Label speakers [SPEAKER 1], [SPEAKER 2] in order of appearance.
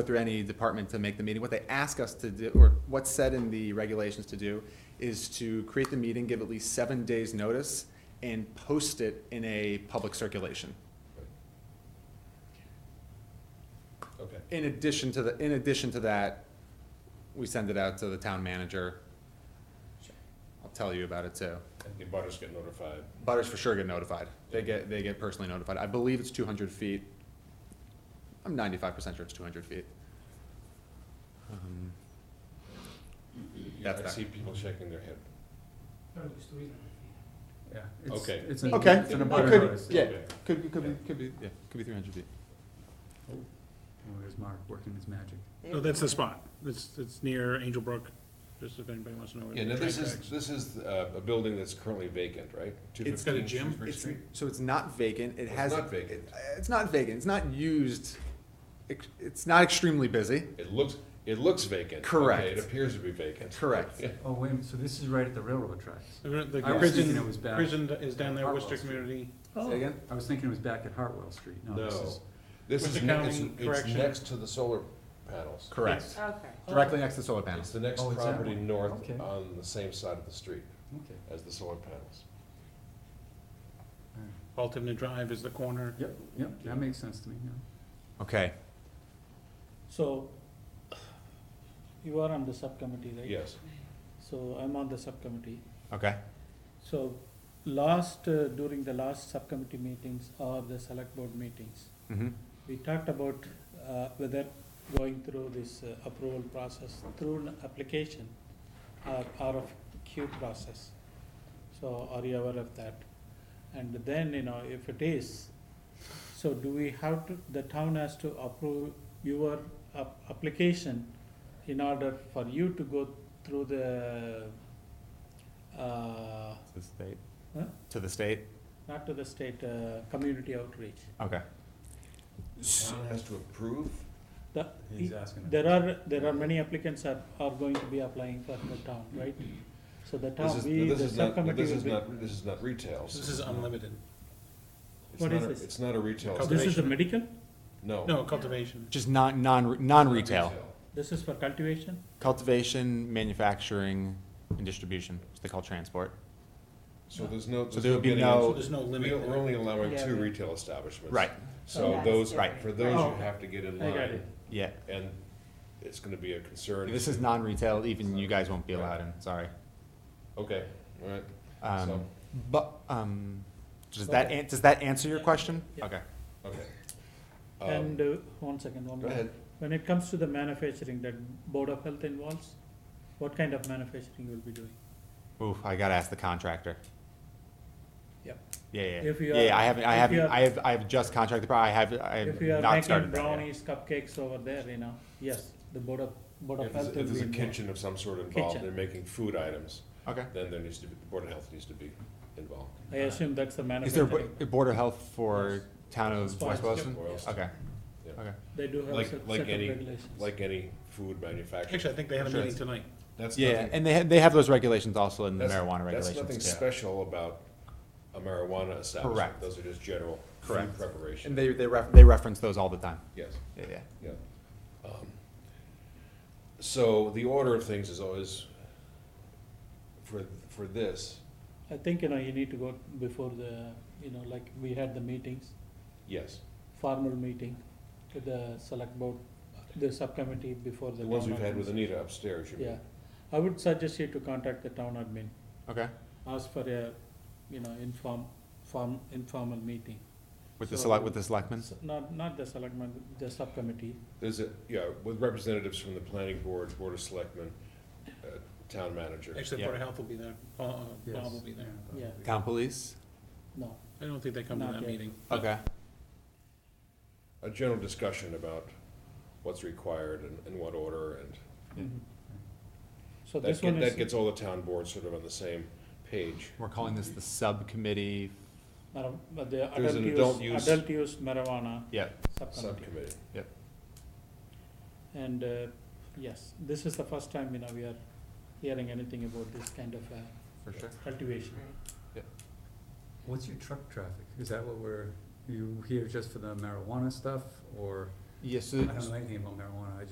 [SPEAKER 1] go through any department to make the meeting. What they ask us to do, or what's said in the regulations to do, is to create the meeting, give at least seven days' notice, and post it in a public circulation.
[SPEAKER 2] Okay,
[SPEAKER 1] In addition to the, in addition to that, we send it out to the town manager. I'll tell you about it too.
[SPEAKER 2] and the butters get notified.
[SPEAKER 1] Butters for sure get notified. They get, they get personally notified. I believe it's two hundred feet. I'm ninety-five percent sure it's two hundred feet. Um,
[SPEAKER 2] You-
[SPEAKER 1] That's
[SPEAKER 2] I
[SPEAKER 1] that.
[SPEAKER 2] see people shaking their head.
[SPEAKER 3] No, it's three hundred feet.
[SPEAKER 4] Yeah. it's-
[SPEAKER 2] Okay.
[SPEAKER 4] It's an,
[SPEAKER 1] Okay.
[SPEAKER 4] it's an
[SPEAKER 2] It
[SPEAKER 4] abutter
[SPEAKER 2] could-
[SPEAKER 4] notice.
[SPEAKER 1] Yeah,
[SPEAKER 2] Okay.
[SPEAKER 1] could be, could be, could be, yeah, could be three hundred feet.
[SPEAKER 4] Oh, There's Mark working his magic.
[SPEAKER 5] No, Oh, that's the spot. It's, it's near Angel Brook, just if anybody wants to know. where
[SPEAKER 2] Yeah,
[SPEAKER 5] the
[SPEAKER 2] now this
[SPEAKER 5] track
[SPEAKER 2] is,
[SPEAKER 5] backs.
[SPEAKER 2] this is uh, a building that's currently vacant, right?
[SPEAKER 5] It's got a
[SPEAKER 2] 215
[SPEAKER 5] gym.
[SPEAKER 2] Shrewsbury
[SPEAKER 1] It's-
[SPEAKER 2] Street?
[SPEAKER 1] So it's not vacant, it
[SPEAKER 2] It's
[SPEAKER 1] has.
[SPEAKER 2] not vacant.
[SPEAKER 1] it- It's not vacant, it's not used, Ex- it's not extremely busy,
[SPEAKER 2] It looks, it looks vacant. Okay,
[SPEAKER 1] Correct.
[SPEAKER 2] It appears to be vacant.
[SPEAKER 1] correct.
[SPEAKER 4] Oh, wait, a minute, so this is right at the railroad tracks.
[SPEAKER 5] The- The
[SPEAKER 4] I was thinking it was
[SPEAKER 5] prison,
[SPEAKER 4] back.
[SPEAKER 5] prison is down there, Worcester
[SPEAKER 4] Hartwell Street.
[SPEAKER 5] Community.
[SPEAKER 6] Oh.
[SPEAKER 1] Say again?
[SPEAKER 4] I was thinking it was back at Hartwell Street. No, this
[SPEAKER 2] No,
[SPEAKER 4] is,
[SPEAKER 2] this
[SPEAKER 5] With
[SPEAKER 2] is,
[SPEAKER 5] the
[SPEAKER 2] ne- it's,
[SPEAKER 5] county
[SPEAKER 2] it's
[SPEAKER 5] correction.
[SPEAKER 2] next to the solar panels.
[SPEAKER 1] Correct,
[SPEAKER 7] Okay.
[SPEAKER 1] directly next to solar
[SPEAKER 2] It's
[SPEAKER 1] panels.
[SPEAKER 2] the next
[SPEAKER 4] Oh, it's that
[SPEAKER 2] property
[SPEAKER 4] one.
[SPEAKER 2] north
[SPEAKER 4] Okay.
[SPEAKER 2] on the same side of the street
[SPEAKER 4] okay.
[SPEAKER 2] as the solar panels.
[SPEAKER 4] all right.
[SPEAKER 5] Altamont Drive is the corner.
[SPEAKER 4] Yep, yep, that makes sense to me, yeah.
[SPEAKER 1] Okay,
[SPEAKER 6] So, you are on the subcommittee, right?
[SPEAKER 2] Yes,
[SPEAKER 6] So I'm on the subcommittee.
[SPEAKER 1] okay.
[SPEAKER 6] So last, uh, during the last subcommittee meetings or the select board meetings,
[SPEAKER 1] Mm-hmm.
[SPEAKER 6] we talked about uh, whether going through this uh, approval process through an application or RFQ process. So are you aware of that? And then, you know, if it is, so do we have to, the town has to approve your ap- application in order for you to go through the, uh,
[SPEAKER 1] To the state?
[SPEAKER 6] Huh?
[SPEAKER 1] To the state,
[SPEAKER 6] not to the state, uh, community outreach?
[SPEAKER 1] okay.
[SPEAKER 2] town has to approve?
[SPEAKER 6] The,
[SPEAKER 4] He's asking.
[SPEAKER 6] There are, there are many applicants are, are going to be applying for the town, right? So the
[SPEAKER 2] This
[SPEAKER 6] town,
[SPEAKER 2] is,
[SPEAKER 6] we,
[SPEAKER 2] this
[SPEAKER 6] the
[SPEAKER 2] is not,
[SPEAKER 6] subcommittee
[SPEAKER 2] this
[SPEAKER 6] will
[SPEAKER 2] is
[SPEAKER 6] be.
[SPEAKER 2] not, this is not retail.
[SPEAKER 5] This is unlimited.
[SPEAKER 2] It's
[SPEAKER 6] what
[SPEAKER 2] not
[SPEAKER 6] is
[SPEAKER 2] a-
[SPEAKER 6] this? Oh,
[SPEAKER 2] It's not a retail,
[SPEAKER 5] This
[SPEAKER 6] This
[SPEAKER 2] site.
[SPEAKER 6] is the medical,
[SPEAKER 2] no.
[SPEAKER 5] No, cultivation.
[SPEAKER 1] Just non, non, non-retail,
[SPEAKER 6] this is for cultivation,
[SPEAKER 1] cultivation, manufacturing, and distribution, which they call transport.
[SPEAKER 2] So there's no,
[SPEAKER 1] So
[SPEAKER 2] there's
[SPEAKER 1] there
[SPEAKER 2] no
[SPEAKER 1] would be
[SPEAKER 2] getting
[SPEAKER 5] So
[SPEAKER 1] no,
[SPEAKER 5] there's no
[SPEAKER 2] We
[SPEAKER 5] limit.
[SPEAKER 2] are only allowing
[SPEAKER 6] Yeah, Oh,
[SPEAKER 2] two
[SPEAKER 6] yeah.
[SPEAKER 2] retail establishments.
[SPEAKER 1] right,
[SPEAKER 2] So
[SPEAKER 7] That's
[SPEAKER 2] those,
[SPEAKER 7] different.
[SPEAKER 2] for those, you
[SPEAKER 6] Oh.
[SPEAKER 2] have to get in
[SPEAKER 6] I got
[SPEAKER 2] line,
[SPEAKER 6] it.
[SPEAKER 1] yeah.
[SPEAKER 2] and it's gonna be a concern.
[SPEAKER 1] This is non-retail, even you guys won't be allowed in, sorry.
[SPEAKER 2] Okay, all right,
[SPEAKER 1] Um,
[SPEAKER 2] So-
[SPEAKER 1] but, um, does that, an- does that answer your question?
[SPEAKER 6] Yeah.
[SPEAKER 1] Okay.
[SPEAKER 2] okay. Um,
[SPEAKER 6] and, uh, one second, one
[SPEAKER 2] Go
[SPEAKER 6] more.
[SPEAKER 2] ahead.
[SPEAKER 6] When it comes to the manufacturing that Board of Health involves, what kind of manufacturing you will be doing?
[SPEAKER 1] Ooh, I gotta ask the contractor.
[SPEAKER 6] Yep.
[SPEAKER 1] Yeah, yeah,
[SPEAKER 6] If you
[SPEAKER 1] yeah, yeah,
[SPEAKER 6] are-
[SPEAKER 1] I haven't, I
[SPEAKER 6] if
[SPEAKER 1] haven't,
[SPEAKER 6] you are-
[SPEAKER 1] I have, I have just contracted, pro- I have, I
[SPEAKER 6] If
[SPEAKER 1] have
[SPEAKER 6] you are
[SPEAKER 1] not
[SPEAKER 6] making
[SPEAKER 1] started that yet.
[SPEAKER 6] brownies, cupcakes over there, you know, yes, the Board of, Board
[SPEAKER 2] If
[SPEAKER 6] of
[SPEAKER 2] there's,
[SPEAKER 6] Health will
[SPEAKER 2] if
[SPEAKER 6] be
[SPEAKER 2] there's a
[SPEAKER 6] involved.
[SPEAKER 2] kitchen of some sort involved,
[SPEAKER 6] Kitchen.
[SPEAKER 2] they're making food items,
[SPEAKER 1] Okay.
[SPEAKER 2] then there needs to be, the Board of Health needs to be involved.
[SPEAKER 6] I assume that's the
[SPEAKER 1] Is there a
[SPEAKER 6] manufacturing,
[SPEAKER 1] bo- a Board of Health for
[SPEAKER 6] Yes.
[SPEAKER 1] town of
[SPEAKER 6] Sponsor.
[SPEAKER 1] West Boylston?
[SPEAKER 2] Or else,
[SPEAKER 1] Okay,
[SPEAKER 2] Yeah.
[SPEAKER 1] okay.
[SPEAKER 6] they do have
[SPEAKER 2] Like-
[SPEAKER 6] set
[SPEAKER 2] like
[SPEAKER 6] set of
[SPEAKER 2] any-
[SPEAKER 6] regulations.
[SPEAKER 2] like any food manufacturer,
[SPEAKER 5] Actually, I think they had a
[SPEAKER 1] Sure.
[SPEAKER 5] meeting tonight.
[SPEAKER 2] that's nothing.
[SPEAKER 1] Yeah, and they, ha- they have those regulations also in the
[SPEAKER 2] that's-
[SPEAKER 1] marijuana
[SPEAKER 2] That's nothing
[SPEAKER 1] regulations. yeah.
[SPEAKER 2] special about a marijuana establishment,
[SPEAKER 1] Correct.
[SPEAKER 2] those are just general food
[SPEAKER 1] Correct. And
[SPEAKER 2] preparation,
[SPEAKER 1] they, they ref, they reference those all the time.
[SPEAKER 2] yes.
[SPEAKER 1] Yeah, yeah.
[SPEAKER 2] Yeah. Um, So the order of things is always, for, for this,
[SPEAKER 6] I think, you know, you need to go before the, you know, like, we had the meetings,
[SPEAKER 2] yes,
[SPEAKER 6] formal meeting with the select board, the subcommittee before the.
[SPEAKER 2] the ones
[SPEAKER 6] town
[SPEAKER 2] we've had with
[SPEAKER 6] admin.
[SPEAKER 2] Anita upstairs, you
[SPEAKER 6] Yeah,
[SPEAKER 2] mean?
[SPEAKER 6] I would suggest you to contact the town admin,
[SPEAKER 1] Okay,
[SPEAKER 6] ask for a, you know, inform, form, informal meeting.
[SPEAKER 1] with the
[SPEAKER 6] So-
[SPEAKER 1] select, with the selectmen?
[SPEAKER 6] Not, not the selectmen, the subcommittee,
[SPEAKER 2] There's a, yeah, with representatives from the planning board, board of selectmen, uh, town manager.
[SPEAKER 5] Actually,
[SPEAKER 1] Yeah.
[SPEAKER 5] Board of Health will be there. Uh, uh, Bob will be there.
[SPEAKER 6] yeah,
[SPEAKER 1] Town police?
[SPEAKER 6] no,
[SPEAKER 5] I don't think they come to
[SPEAKER 6] Not
[SPEAKER 5] that
[SPEAKER 6] yet.
[SPEAKER 5] meeting.
[SPEAKER 1] Okay,
[SPEAKER 2] A general discussion about what's required and, and what order, and
[SPEAKER 6] Mm-hmm. so
[SPEAKER 2] that,
[SPEAKER 6] this one
[SPEAKER 2] get- that
[SPEAKER 6] is
[SPEAKER 2] gets all the town boards sort of on the same page.
[SPEAKER 1] we're calling this the subcommittee,
[SPEAKER 6] mara- but the
[SPEAKER 2] There's an
[SPEAKER 6] adult
[SPEAKER 2] adult
[SPEAKER 6] use,
[SPEAKER 2] use-
[SPEAKER 6] adult use marijuana
[SPEAKER 1] yeah,
[SPEAKER 6] subcommittee.
[SPEAKER 2] Subcommittee,
[SPEAKER 6] And, uh, yes, this is the first time, you know, we are hearing anything about this kind of, uh,
[SPEAKER 1] for sure.
[SPEAKER 6] cultivation.
[SPEAKER 4] What's your truck traffic? Is that what we're, you here just for the marijuana stuff or
[SPEAKER 1] Yes,
[SPEAKER 4] I don't know anything about marijuana, I just